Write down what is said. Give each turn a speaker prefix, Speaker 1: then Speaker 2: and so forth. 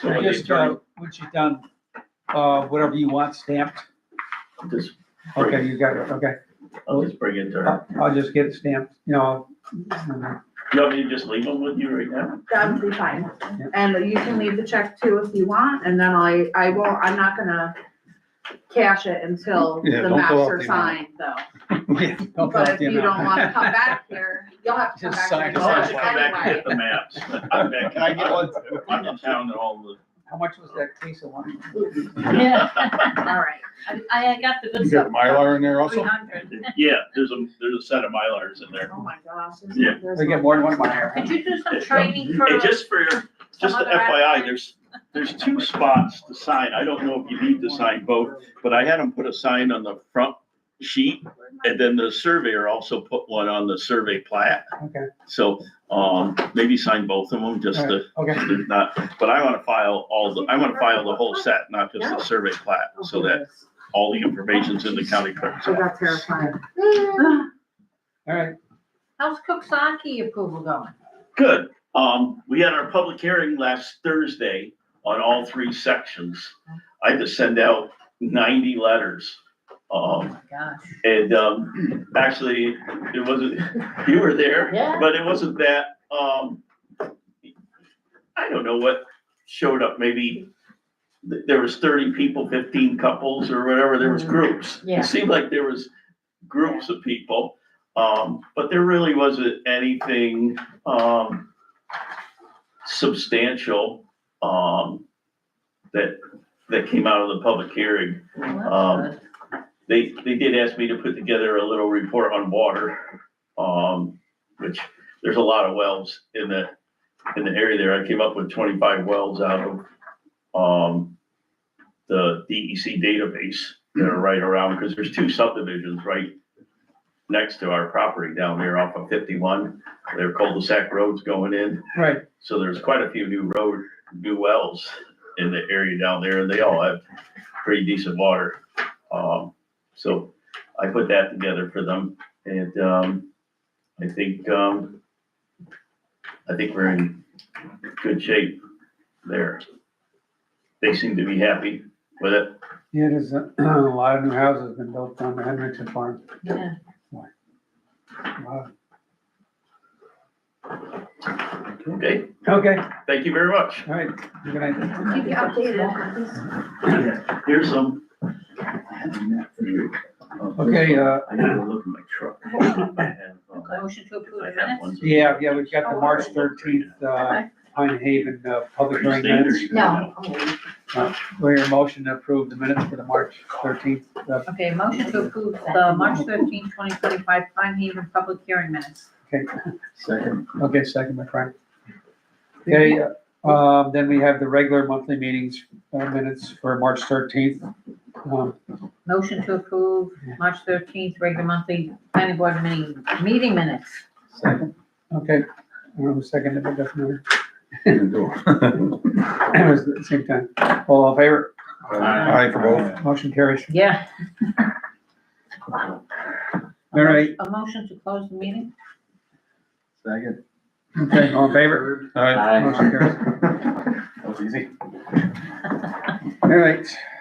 Speaker 1: So when the
Speaker 2: Just, uh,
Speaker 1: attorney-
Speaker 2: once you're done, uh, whatever you want stamped,
Speaker 1: Just,
Speaker 2: okay, you got it, okay.
Speaker 1: just bring it to her.
Speaker 2: I'll I'll just get it stamped, you know.
Speaker 1: You want me to just leave them with you right now?
Speaker 3: That would be fine. And you can leave the check too if you want, and then I, I will, I'm not gonna cash it until
Speaker 2: Yeah,
Speaker 3: the
Speaker 2: don't fill out
Speaker 3: master
Speaker 2: the amount.
Speaker 3: signs though.
Speaker 2: Yeah, don't fill
Speaker 3: But
Speaker 2: out
Speaker 3: if
Speaker 2: the
Speaker 3: you don't
Speaker 2: amount.
Speaker 3: wanna come back here, you'll have to come back.
Speaker 2: Just sign
Speaker 3: here
Speaker 2: it.
Speaker 1: I'll have to
Speaker 3: anyway.
Speaker 1: come back and get the maps. I'm back.
Speaker 4: Can I get one?
Speaker 1: I'm in town and all the.
Speaker 2: How much was that case of wine?
Speaker 5: Yeah,
Speaker 3: All right,
Speaker 5: I, I got the good
Speaker 4: You got
Speaker 5: stuff.
Speaker 4: Mylar in there
Speaker 5: Three
Speaker 4: also?
Speaker 5: hundred.
Speaker 1: Yeah, there's a, there's a set of Mylars in there.
Speaker 3: oh my gosh. this is-
Speaker 1: Yeah.
Speaker 3: there's
Speaker 2: We get more than one of mine here.
Speaker 5: Could you do some training for?
Speaker 1: Hey, just for, just
Speaker 5: other
Speaker 1: FYI,
Speaker 5: actor?
Speaker 1: there's, there's two spots to sign. I don't know if you need to sign both, but I had them put a sign on the front sheet. And then the surveyor also put one on the survey plat.
Speaker 2: Okay,
Speaker 1: So, um, maybe sign both of them just to,
Speaker 2: okay.
Speaker 1: not, but I want to file all the, I want to file the whole set, not just the survey plat. So that all the information's in the county clerk's
Speaker 3: I got
Speaker 1: office.
Speaker 3: terrified.
Speaker 2: All right,
Speaker 5: How's Koksaki approval going?
Speaker 1: Good. Um, we had our public hearing last Thursday on all three sections. I had to send out ninety letters. Um,
Speaker 5: Oh my gosh.
Speaker 1: and, um, actually, it wasn't, you were there,
Speaker 5: Yeah.
Speaker 1: but it wasn't that, um, I don't know what showed up, maybe th- there was thirty people, fifteen couples or whatever, there was groups.
Speaker 5: Mm. Yeah.
Speaker 1: It seemed like there was groups of people, um, but there really wasn't anything, um, substantial, um, that, that came out of the public hearing.
Speaker 5: Well,
Speaker 1: Um,
Speaker 5: that's good.
Speaker 1: They, they did ask me to put together a little report on water, um, which there's a lot of wells in the, in the area there. I came up with twenty-five wells out of, um, the DEC database that are right around, because there's two subdivisions right next to our property down there off of fifty-one. There are cul-de-sac roads going in.
Speaker 2: right,
Speaker 1: So there's quite a few new road, new wells in the area down there, and they all have pretty decent water. Um, so I put that together for them, and, um, I think, um, I think we're in good shape there. They seem to be happy with it.
Speaker 2: yeah, there's uh, a a lot of new houses been built on the Hendrickson farm.
Speaker 5: Yeah.
Speaker 2: Wow.
Speaker 1: Okay,
Speaker 2: Okay, all
Speaker 1: thank you very much.
Speaker 2: right, good night.
Speaker 3: Keep you updated.
Speaker 1: Here's some.
Speaker 2: Okay, uh,
Speaker 1: I need to look in my truck. I have, um,
Speaker 5: Motion to approve
Speaker 1: I
Speaker 5: the
Speaker 1: have one.
Speaker 5: minutes?
Speaker 2: yeah, yeah, we've got the March thirteenth, uh, Pine Haven, uh, public hearing minutes.
Speaker 5: No.
Speaker 2: Where your motion to approve the minutes for the March thirteenth, uh,
Speaker 5: Okay, motion to approve the March thirteenth, twenty twenty-five Pine Haven public hearing minutes.
Speaker 2: okay,
Speaker 1: Second.
Speaker 2: okay, second, my friend. Okay, uh, um, then we have the regular monthly meetings, uh, minutes for March thirteenth. Um,
Speaker 5: Motion to approve March thirteenth, regular monthly planning board meeting, meeting minutes.
Speaker 2: okay, um, second, it doesn't matter.
Speaker 4: Aye
Speaker 2: It was at the same time. All in favor,
Speaker 4: for both.
Speaker 2: motion carries.
Speaker 5: Yeah.
Speaker 2: All right,
Speaker 5: A motion to close the meeting?
Speaker 4: Second.
Speaker 2: okay, all in favor,
Speaker 4: Aye.
Speaker 2: motion carries.
Speaker 4: That was easy.
Speaker 2: All right,